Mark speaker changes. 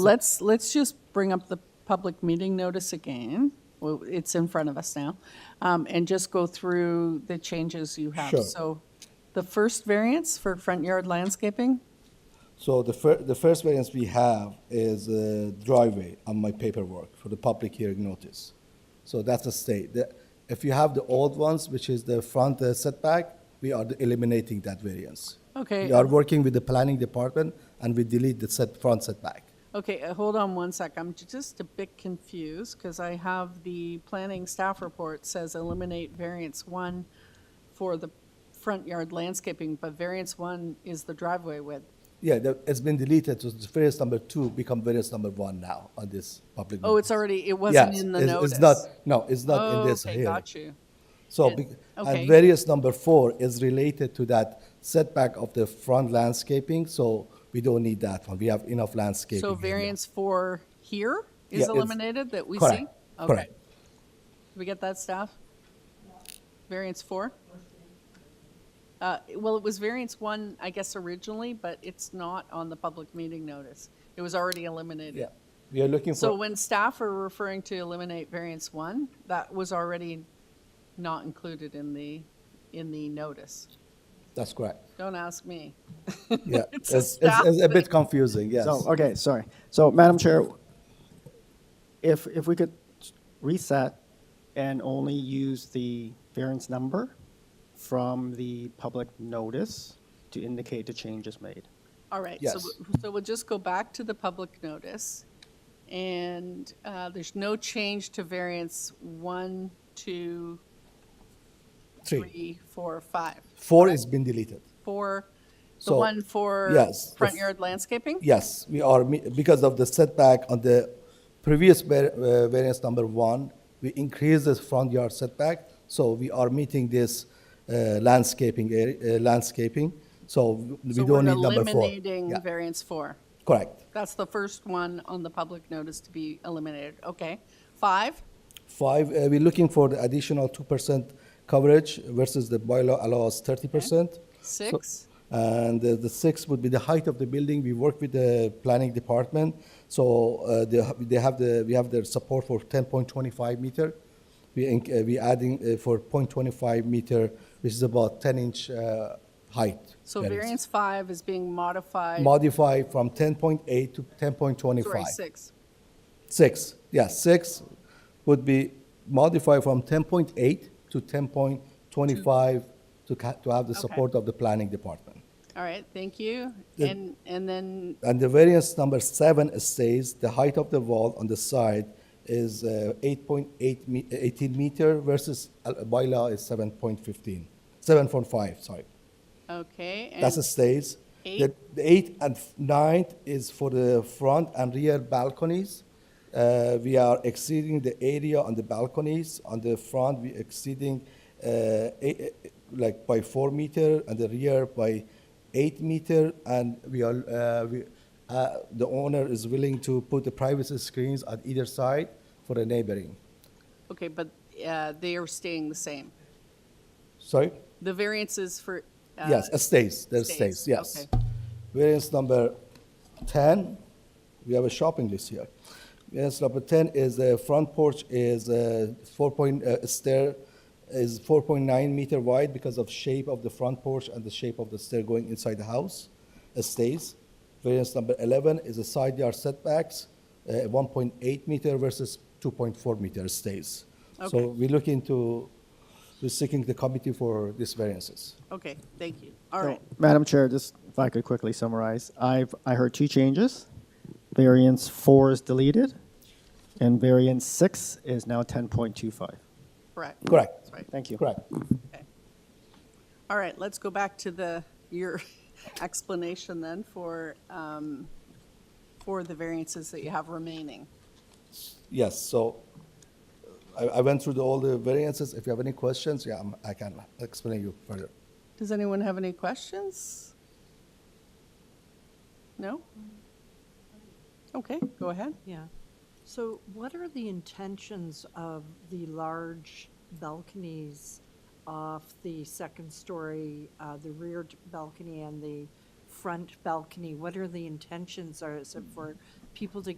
Speaker 1: So let's, let's just bring up the public meeting notice again. Well, It's in front of us now. Um, And just go through the changes you have.
Speaker 2: Sure.
Speaker 1: So the first variance for front yard landscaping,
Speaker 2: So the fir- the first variance we have is uh, driveway on my paperwork for the public hearing notice. So that's a state. The- If you have the old ones, which is the front uh, setback, we are eliminating that variance.
Speaker 1: Okay.
Speaker 2: We are working with the planning department and we delete the set, front setback.
Speaker 1: Okay, uh, hold on one sec. I'm ju- just a bit confused because I have the planning staff report says eliminate variance one for the front yard landscaping, but variance one is the driveway width.
Speaker 2: Yeah, the- it's been deleted, so it's variance number two become variance number one now on this public.
Speaker 1: Oh, it's
Speaker 2: notice.
Speaker 1: already, it wasn't
Speaker 2: Yes,
Speaker 1: in the
Speaker 2: it's-
Speaker 1: notice. Oh,
Speaker 2: It's not, no, it's not in this
Speaker 1: Okay,
Speaker 2: hearing.
Speaker 1: got you.
Speaker 2: So,
Speaker 1: It-
Speaker 2: bec-
Speaker 1: okay.
Speaker 2: and variance number four is related to that setback of the front landscaping, so we don't need that one. We have enough landscaping.
Speaker 1: So
Speaker 2: area.
Speaker 1: variance four here
Speaker 2: Yeah,
Speaker 1: is
Speaker 2: it's-
Speaker 1: eliminated that we see?
Speaker 2: Correct,
Speaker 1: Okay.
Speaker 2: correct.
Speaker 1: Did we get that, staff? Variance four? Uh, Well, it was variance one, I guess, originally, but it's not on the public meeting notice. It was already eliminated.
Speaker 2: Yeah, we are looking
Speaker 1: So
Speaker 2: for,
Speaker 1: when staff are referring to eliminate variance one, that was already not included in the, in the notice.
Speaker 2: that's correct.
Speaker 1: Don't ask me.
Speaker 2: Yeah,
Speaker 1: It's
Speaker 2: it's,
Speaker 1: a
Speaker 2: it's
Speaker 1: staff
Speaker 2: it's a
Speaker 1: thing.
Speaker 2: bit confusing, yes.
Speaker 3: So, okay, sorry. So, Madam Chair, if, if we could reset and only use the variance number from the public notice to indicate the changes made.
Speaker 1: All right, so,
Speaker 2: Yes.
Speaker 1: w- so we'll just go back to the public notice, and uh, there's no change to variance one, two,
Speaker 2: Three,
Speaker 1: three, four, five.
Speaker 2: four has been deleted.
Speaker 1: For the
Speaker 2: So,
Speaker 1: one for
Speaker 2: yes, the
Speaker 1: front
Speaker 2: f-
Speaker 1: yard landscaping?
Speaker 2: Yes, we are, me- because of the setback on the previous var- uh, variance number one, we increased the front yard setback, so we are meeting this uh, landscaping, area- uh, landscaping, so we
Speaker 1: So
Speaker 2: don't
Speaker 1: we're
Speaker 2: need number four.
Speaker 1: Eliminating
Speaker 2: Yeah,
Speaker 1: variance four.
Speaker 2: Correct.
Speaker 1: That's the first one on the public notice to be eliminated. Okay. Five,
Speaker 2: Five, uh, we're looking for the additional two percent coverage versus the bylaw allows thirty percent.
Speaker 1: six,
Speaker 2: And uh, the sixth would be the height of the building. We work with the planning department, so uh, they ha- they have the, we have their support for 10.25 meter. We, inc- uh, we adding uh, for 0.25 meter, which is about 10 inch uh, height.
Speaker 1: so
Speaker 2: variance.
Speaker 1: variance five is being modified.
Speaker 2: Modify from 10.8 to 10.25.
Speaker 1: Sorry, six.
Speaker 2: Six, yeah, six would be modified from 10.8 to 10.25 to ca- to have the
Speaker 1: Okay.
Speaker 2: support of the planning department.
Speaker 1: All right, thank you.
Speaker 2: The-
Speaker 1: And, and then
Speaker 2: And the variance number seven says the height of the wall on the side is uh, 8.8 me- 18 meter versus uh, bylaw is 7.15, 7.5, sorry.
Speaker 1: Okay,
Speaker 2: That's the
Speaker 1: and,
Speaker 2: stays. The
Speaker 1: eight?
Speaker 2: the eight and f- ninth is for the front and rear balconies. Uh, We are exceeding the area on the balconies. On the front, we exceeding uh, eight- eh, eh, like by four meter, and the rear by eight meter. And we are, uh, we- uh, the owner is willing to put the privacy screens on either side for the neighboring.
Speaker 1: okay, but uh, they are staying the same.
Speaker 2: Sorry?
Speaker 1: The variances for. uh,
Speaker 2: Yes, it stays, there
Speaker 1: stays,
Speaker 2: stays, yes.
Speaker 1: okay.
Speaker 2: Variance number 10, we have a shopping list here. Variance number 10 is the front porch is uh, 4 point, uh, stair is 4.9 meter wide because of shape of the front porch and the shape of the stair going inside the house, it stays. Variance number 11 is the side yard setbacks, uh, 1.8 meter versus 2.4 meter, it stays.
Speaker 1: Okay.
Speaker 2: So we're looking to, we're seeking the committee for these variances.
Speaker 1: Okay, thank you. All
Speaker 3: So,
Speaker 1: right,
Speaker 3: Madam Chair, just if I could quickly summarize, I've, I heard two changes. Variance four is deleted, and variance six is now 10.25.
Speaker 1: correct.
Speaker 2: Correct.
Speaker 1: That's right.
Speaker 3: Thank you.
Speaker 2: Correct.
Speaker 1: All right, let's go back to the, your explanation then for, um, for the variances that you have remaining.
Speaker 2: Yes, so I, I went through the, all the variances. If you have any questions, yeah, I'm, I can explain you further.
Speaker 1: Does anyone have any questions? No? Okay, go ahead.
Speaker 4: Yeah. So what are the intentions of the large balconies off the second story, uh, the rear d- balcony and the front balcony? What are the intentions? Are, is it for people to